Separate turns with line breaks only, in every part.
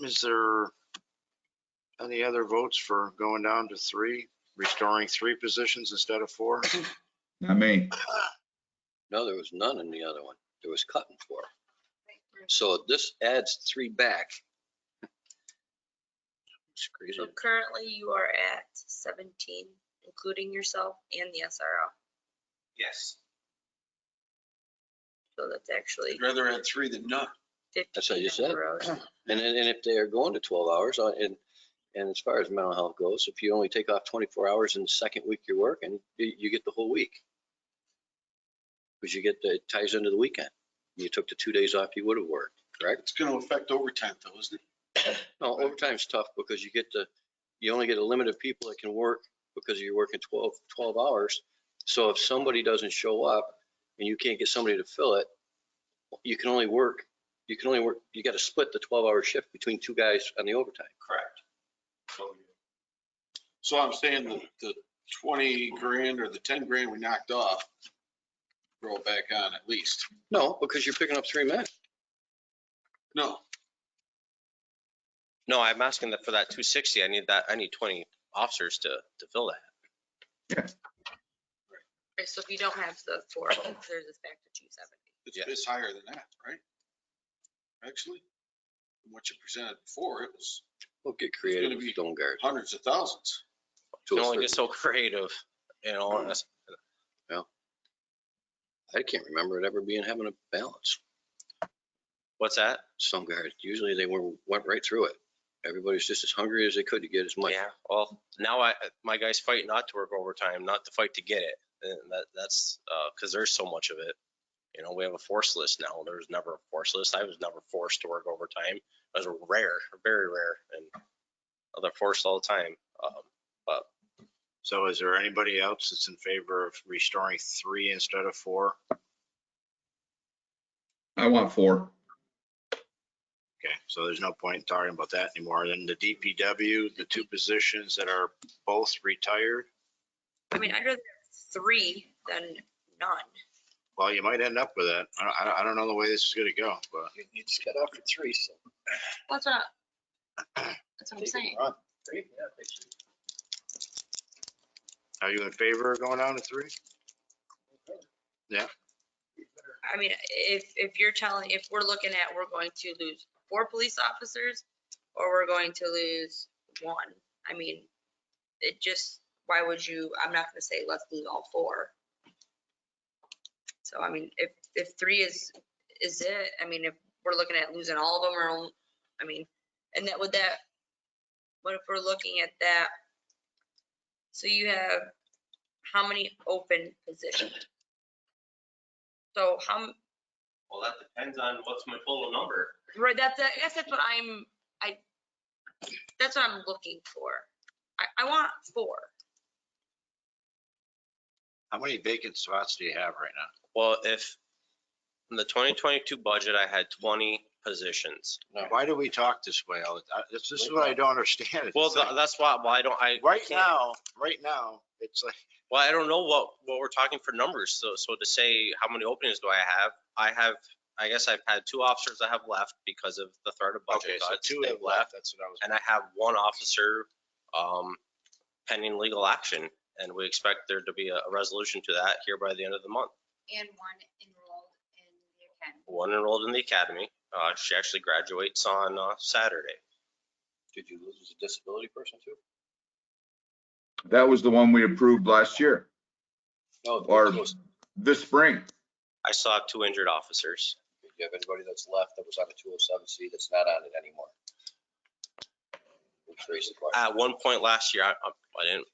Is there any other votes for going down to three, restoring three positions instead of four?
Not me.
No, there was none in the other one. There was cutting four. So this adds three back. It's crazy.
So currently you are at 17, including yourself and the SRO.
Yes.
So that's actually
I'd rather add three than none.
That's what
15
you
in
said.
a row.
And then, and if they are going to 12 hours, uh, and, and as far as mental health goes, if you only take off 24 hours in the second week you're working, you, you get the whole week. Because you get, the- it ties into the weekend. You took the two days off you would have worked, correct?
It's gonna affect overtime though, isn't it?
No, overtime's tough because you get the, you only get a limit of people that can work because you're working 12, 12 hours. So if somebody doesn't show up and you can't get somebody to fill it, you can only work, you can only work, you got to split the 12-hour shift between two guys on the overtime.
Correct. So I'm saying that the twenty grand or the ten grand we knocked off, roll back on at least.
No, because you're picking up three men.
No,
No, I'm asking that for that two sixty, I need that, I need twenty officers to, to fill that.
Okay, So if you don't have the four, there's this back to 270.
it's,
Yeah.
it's higher than that, right? Actually, from what you presented before, it was
We'll get creative
gonna
with
be-
stone guards.
hundreds of thousands.
You
to
can
a
only get
certain-
so creative, you know, and that's-
I can't remember it ever being having a balance.
what's that?
Stone guards, usually they were, went right through it. Everybody's just as hungry as they could to get as much.
Yeah, well, now I, my guys fight not to work overtime, not to fight to get it, and that, that's, uh, cause there's so much of it. You know, we have a force list now, there was never a force list, I was never forced to work overtime, it was rare, very rare, and they're forced all the time. Um,
So is there anybody else that's in favor of restoring three instead of four?
I want four.
Okay, so there's no point in talking about that anymore. Then the DPW, the two positions that are both retired.
I mean, I'd rather have three than none.
Well, you might end up with that. I, I- I don't know the way this is gonna go, but
You you just got off for three, so.
That's what, I- that's what I'm
take a
saying.
run. Three, yeah, they should.
are you in favor of going down to three?
I mean, if, if you're telling, if we're looking at, we're going to lose four police officers or we're going to lose one, I mean, it just, why would you, I'm not gonna say let's lose all four. So I mean, if, if three is, is it, I mean, if we're looking at losing all of them or, only- I mean, and that would that, what if we're looking at that? So you have how many open positions? So how, m-
Well, that depends on what's my total number.
Right, that's, I guess that's what I'm, I, that's what I'm looking for. I, I want four.
How many vacant spots do you have right now?
Well, if, in the twenty twenty-two budget, I had twenty positions.
Why do we talk this way? all the ti- This this is what I don't understand. It's
Well,
like,
tha- that's why, well, I don't, I.
Right
can't-
now, right now, it's like,
Well, I don't know what, what we're talking for numbers, so, so to say, how many openings do I have? I have, I guess I've had two officers that have left because of the threat of
okay,
budget
so
cuts.
two
They've
have left, that's what I was.
And I have one officer, um, pending legal action, and we expect there to be a a resolution to that here by the end of the month.
and one enrolled in the academy.
One enrolled in the academy, uh, she actually graduates on, uh, Saturday.
Did you lose a disability person too?
That was the one we approved last year,
No.
Or-
there was-
this spring.
I still have two injured officers.
Do you have anybody that's left that was on the 207C that's not on it anymore? Let's raise the question.
At one point last year, I, um, I didn't,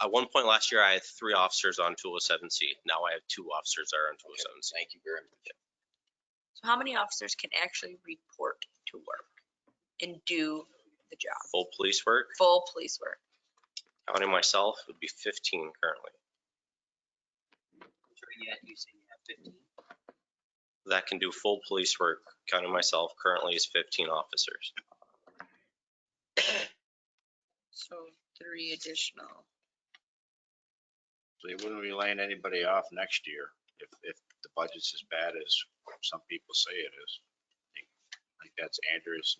at one point last year, I had three officers on 207C. Now I have two oh officers that are on 207C.
Thank you very much.
So how many officers can actually report to work and do the job,
Full police work,
full police work?
counting myself, would be 15 currently.
Yet you say you have fifteen.
That can do full police work, counting myself, currently is 15 officers.
So three additional.
So you wouldn't be laying anybody off next year if, if the budget's as bad as some people say it is. I think- I think that's Andrews